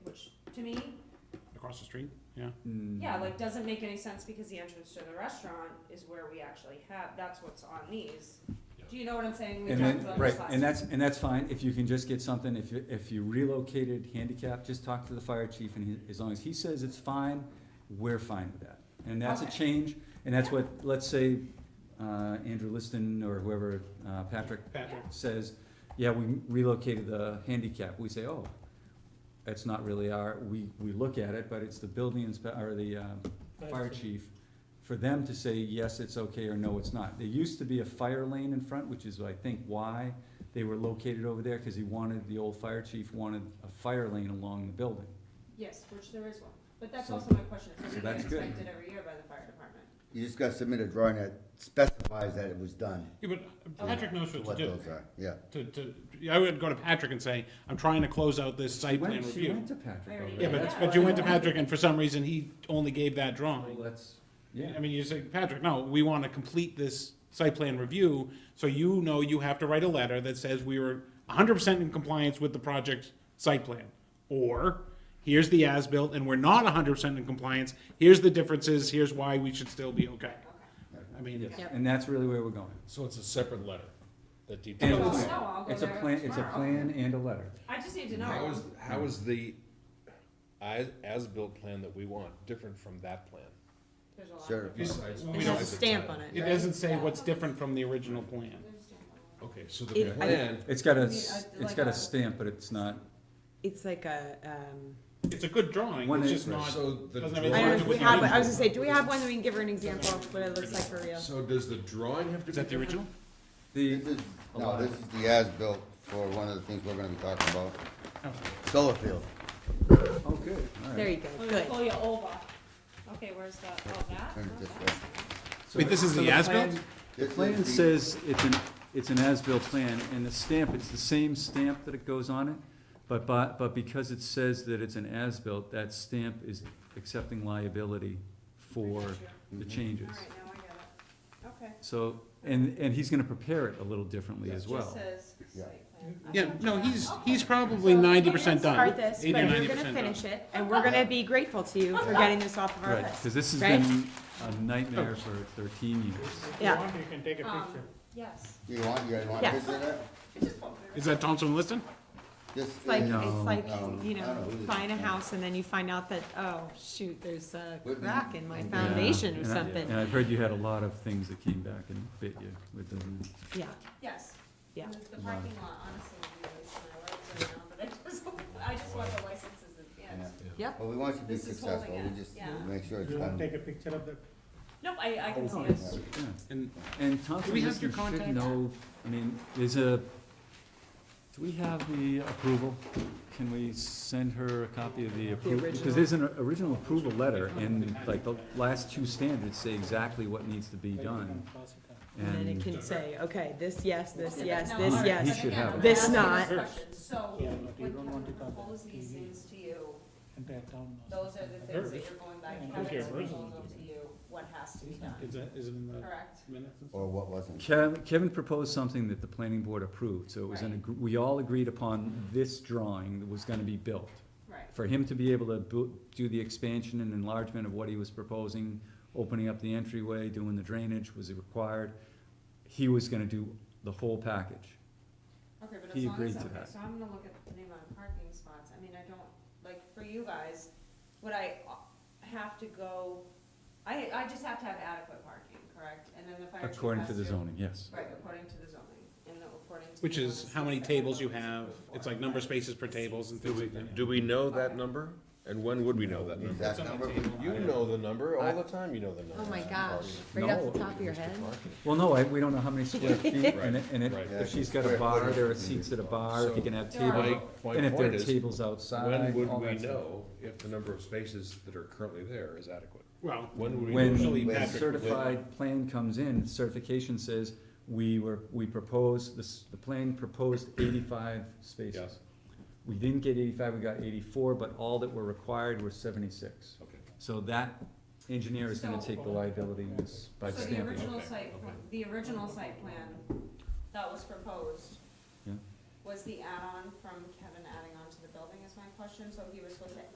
to me, Across the street, yeah. Mm. yeah, Mm-hmm. like, doesn't make any sense because the entrance to the restaurant is where we actually have, that's what's on these. Do you know what I'm saying? We And talked then, about right, this last and that's, and that's fine, if you can just get something, if you, if you relocated handicap, just talk to the fire chief, and he, as long as he says it's fine, we're fine with that. And that's a Okay. change, and that's what, let's say, uh, Andrew Liston or whoever, uh, Patrick Patrick, says, yeah, we relocated the handicap, we say, oh, that's not really our, we, we look at it, but it's the building inspe- or the, uh, fire chief, for them to say, yes, it's okay, or no, it's not. There used to be a fire lane in front, which is, I think, why they were located over there, cause he wanted, the old fire chief wanted a fire lane along the building. Yes, which there is one, but that's So- also my question, so so we get that's good. inspected every year by the fire department. You just gotta submit a drawing that specifies that it was done, yeah, but uh, Patrick knows what what to do. those are, yeah. To, to, I would go to Patrick and say, I'm trying to close out this She site plan went, she review. went to Patrick Already over Yeah, there. but, Yeah. but you went to Patrick and for some reason he only gave that drawing. Well, that's, yeah, I mean, you say, Patrick, no, we wanna complete this site plan review, so you know you have to write a letter that says we were hundred percent in compliance with the project site plan. Or, here's the as-built, and we're not hundred percent in compliance, here's the differences, here's why we should still be okay. I mean, yes, and that's really where we're going. So it's a separate letter that And it's a Well, plan. details. no, I'll go It's a there plan, it's a tomorrow. plan and a letter. I just need to know. How is, how is the as, as-built plan that we want different from that plan? There's a lot. Sure. Besides- It has a besides the stamp title. on it. it doesn't say what's different from the original plan. Okay, so the It- I- plan, It's got a, I mean, s- I'd it's like got a a- stamp, but it's not, It's like a, um, It's a good drawing, One it's is- just not, so the doesn't have any- I don't know if we have, drawing. one. I was gonna say, do we have one that we can give her an example of what it looks like for real? So does the drawing have to be? is that the different? original? the, This is, no, this is the as-built for one of the things we're gonna be talking about. Solar field. oh, good, all There right. you go, Oh, good. Pull you over. Okay, where's the, oh, that? Turn it Oh, this that's- way. So Wait, this is so the as-built? plan- This The is plan the- says it's an, it's an as-built plan, and the stamp, it's the same stamp that it goes on it, but, but, but because it says that it's an as-built, that stamp is accepting liability for the changes. All right, now I get it. Okay. So, and, and he's gonna prepare it a little differently as Just well. says Yeah. site plan. Yeah, no, he's, he's probably ninety percent done. Start this, but 80 or you're 90% gonna done. finish it, and we're gonna be grateful to you for getting this off of our Right, list. cause this has Right? been a nightmare for thirteen years. Yeah, You can take a Um, picture. Yes. You want, you guys want Yeah. this in there? Is that Thompson liston? This it's like, is- it's like, No, you I don't know, know who this buying a is. house and then you find out that, oh, shoot, there's a Wouldn't- crack in my Yeah. foundation or And I- something. And I've heard you had a lot of things that came back and bit you with the. Yeah, Yes. yeah. The parking lot, honestly, is my life right now, but I just, I just want the licenses at the end. Yeah. Yep, Well, we want you to be This is holding successful, we it, just yeah. make sure it's You wanna done. take a picture of the Nope, I, I can see Oh, it. it's- yeah. And And Thompson Do we have your Liston should contact? know, I mean, there's a, do we have the approval? Can we send her a copy of the approval? Because original. there's an original approval letter, and like the last two standards say exactly what needs to be done. and then it And, can say, okay, this, yes, Yeah, this, but yes, no, this, alright, yes. He but should again, have I'm it. This asking not. questions. So, Yeah, when but you don't want Kevin to cover proposes these TV. things to you, entire town. those are the things that you're going back, Yeah, Kevin's okay, version. proposal to you, what has to be done, Is that, is it in the correct? minutes? Or what wasn't. Kev- Kevin proposed something that the planning board approved, so it was an, Right. agr- we all agreed upon this drawing that was gonna be built. Right. For him to be able to bu- do the expansion and enlargement of what he was proposing, opening up the entryway, doing the drainage, was it required? He was gonna do the whole package. Okay, but as He long as, agreed to okay, that. so I'm gonna look at the amount of parking spots, I mean, I don't, like, for you guys, would I uh, have to go, I, I just have to have adequate parking, correct? And then the fire chief According to has the zoning, yes. Right, according to the zoning, and the- according to. Which the is notices how many that were tables you noticed have, before. it's like number of spaces per tables and Do things we, like that. do we know that number? And when would we know that number? Exact on the number, we- table. You know the number, I- all the time you know the number. Oh my gosh, right right off off the the No. top of your head? Well, no, I, we don't know how many square feet, and it, and it, Right, if she's got a bar, there are seats at a bar, if you can have So- My- tables, my and if there point are is, tables outside, When would all we that stuff. know if the number of spaces that are currently there is adequate? Well, When would we? know? When Usually the Patrick would- certified plan comes in, certification says, we were, we proposed, this, the plan proposed eighty-five spaces. Yes. We didn't get eighty-five, we got eighty-four, but all that were required were seventy-six. Okay. So that engineer is gonna take the liability in this by So the stamping. original Okay, site, okay. the original site plan that was proposed Yeah. was the add-on from Kevin adding on to the building is my question, so he was supposed to